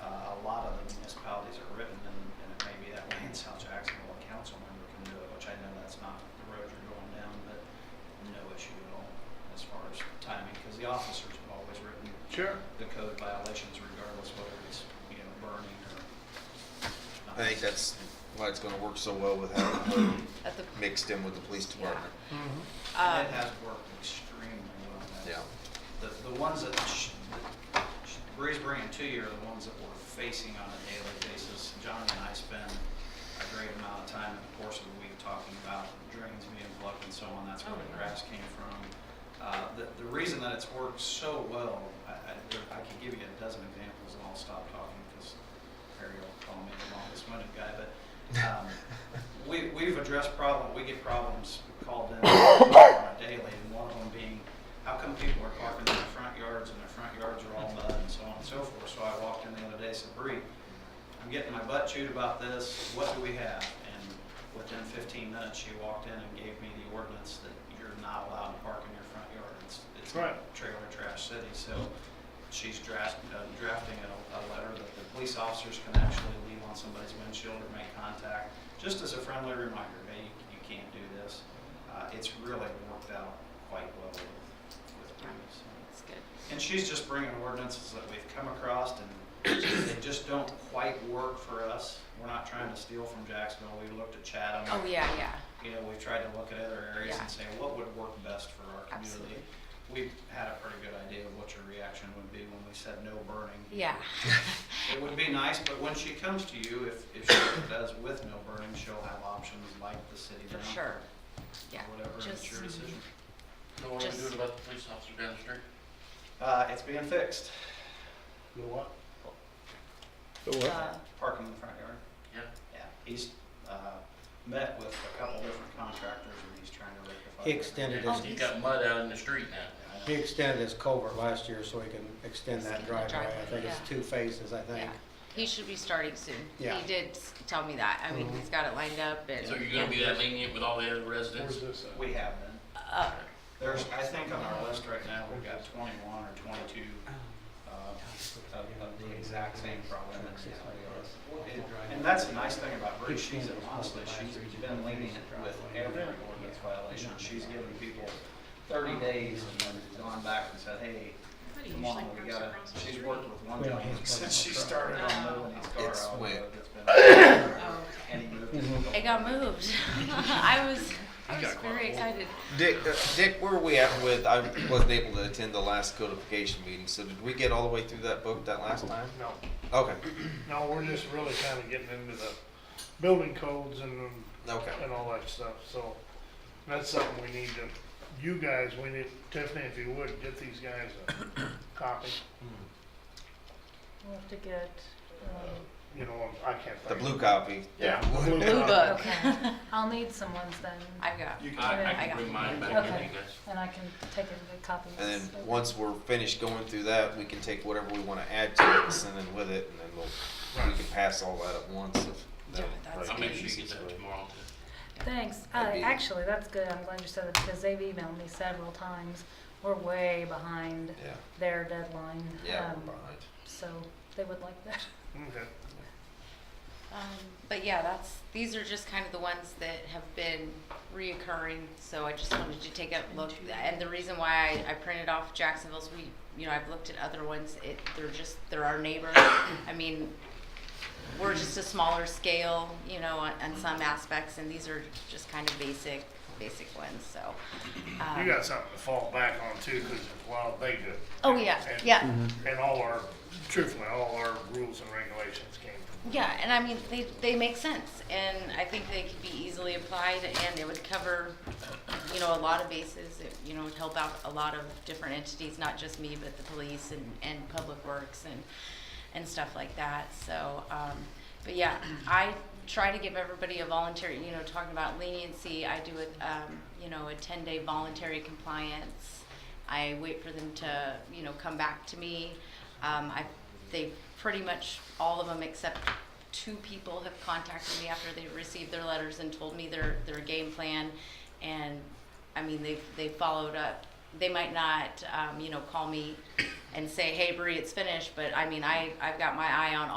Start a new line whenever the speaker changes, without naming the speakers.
Uh,
Sure.
the code violations regardless whether it's, you know, burning or. not.
I think that's why it's gonna work so well with having her
At the,
mixed in with the police department.
Mm-hmm.
um,
And it has worked extremely well. That's-
Yeah.
The, the ones that, sh- that sh- Bree's bringing to you are the ones that we're facing on a daily basis. John and I spend a great amount of time in the course of the week talking about drains being plugged and so on, that's where
Oh,
the
yeah.
grass came from. Uh, the, the reason that it's worked so well, I, I, there- I could give you a dozen examples and I'll stop talking because Harry will call me the longest-winded guy, but, um, we, we've addressed problem, we get problems called in on a daily, and one of them being, how come people are parking in their front yards and their front yards are all mud and so on and so forth? So I walked in the other day, and said, Bree, I'm getting my butt chewed about this, what do we have? And within fifteen minutes, she walked in and gave me the ordinance that you're not allowed to park in your front yard. It's, it's
Right.
trailer trash city, so she's draft, uh, drafting a, a letter that the police officers can actually leave on somebody's windshield or make contact, just as a friendly reminder, hey, you, you can't do this. Uh, it's really worked out quite well with, with me, so.
it's good.
And she's just bringing ordinances that we've come across and they just don't quite work for us. We're not trying to steal from Jacksonville. We looked at Chatham.
Oh, yeah, yeah,
You know, we've tried to look at other areas
Yeah.
and say, what would work best for our community?
absolutely.
We had a pretty good idea of what your reaction would be when we said no burning.
Yeah.
It would be nice, but when she comes to you, if, if she does with no burning, she'll have options like the city
For
down.
sure.
or
Yeah.
Whatever, and it's
Just- mm-hmm.
your decision.
So what are we
Just-
doing about the police officer down the street?
Uh, it's being fixed,
The what?
Uh,
parking in the front yard.
Yeah,
Yeah, he's uh, met with a couple different contractors and he's trying to rectify.
He
that.
extended
Oh,
his,
you
he's-
got mud out in the street now.
Yeah, I
he
know.
extended his culvert last year so he can extend
Extend
that
the
driveway. I
driveway,
think
yeah.
it's two phases, I think.
yeah. He should be starting soon. He
Yeah.
did s- tell me that. I mean,
Mhm.
he's got it lined up and.
So you're gonna be that lenient with all the other residents?
this
We have been.
Uh,
There's, I think on our list right now, we've got twenty-one or twenty-two uh, of of the exact same problem. that's in our yard. And- And that's the nice thing about Bree, she's honestly, she's been lenient with every ordinance violation. She's given people thirty days and then gone back and said, hey, Come on, we gotta, she's worked with one
Well,
guy
he's
since she started on moving his car
It's
out.
wet.
but it's been-
Oh,
And he moved
Mhm.
it.
It got moved. I was, I was very excited.
Dick, uh, Dick, where are we at with, I wasn't able to attend the last codification meeting, so did we get all the way through that book that last time?
No,
Okay,
no, we're just really kind of getting into the building codes and,
okay.
and all that stuff, so that's something we need to, you guys, we need, Tiffany, if you would, get these guys a copy,
We'll have to get, um,
you know, I can't think.
The blue copy.
Yeah. the blue
Blue
copy.
book.
okay, I'll need some ones then,
I got,
You can, I, I
I got
can bring mine back
Okay.
in, you guys.
and I can take a good copy.
And then, once we're finished going through that, we can take whatever we wanna add to it, send in with it, and then we'll, we can pass all that at once if.
yeah, that's
I'll
good.
make sure you get that tomorrow too.
Thanks, uh,
That'd be-
actually, that's good, I'm glad you said that, because they've emailed me several times, we're way behind
Yeah,
their deadline.
yeah, we're
um,
behind.
So, they would like that.
Okay.
Um, but yeah, that's, these are just kind of the ones that have been reoccurring, so I just wanted to take a look. And the reason why I, I printed off Jacksonville's, we, you know, I've looked at other ones, it, they're just, they're our neighbors. I mean, we're just a smaller scale, you know, on, on some aspects, and these are just kind of basic, basic ones, so.
You
um,
got something to fall back on too, because it's wild they do.
Oh, yeah,
And-
yeah.
And all our, truthfully, all our rules and regulations came from.
Yeah, and I mean, they, they make sense, and I think they could be easily applied, and it would cover, you know, a lot of bases. It, you know, would help out a lot of different entities, not just me, but the police and, and public works and, and stuff like that, so, um, but yeah, I try to give everybody a voluntary, you know, talking about leniency, I do a, um, you know, a ten-day voluntary compliance. I wait for them to, you know, come back to me. Um, I, they, pretty much all of them except two people have contacted me after they received their letters and told me their, their game plan. And, I mean, they've, they followed up. They might not, um, you know, call me and say, hey, Bree, it's finished, but I mean, I, I've got my eye on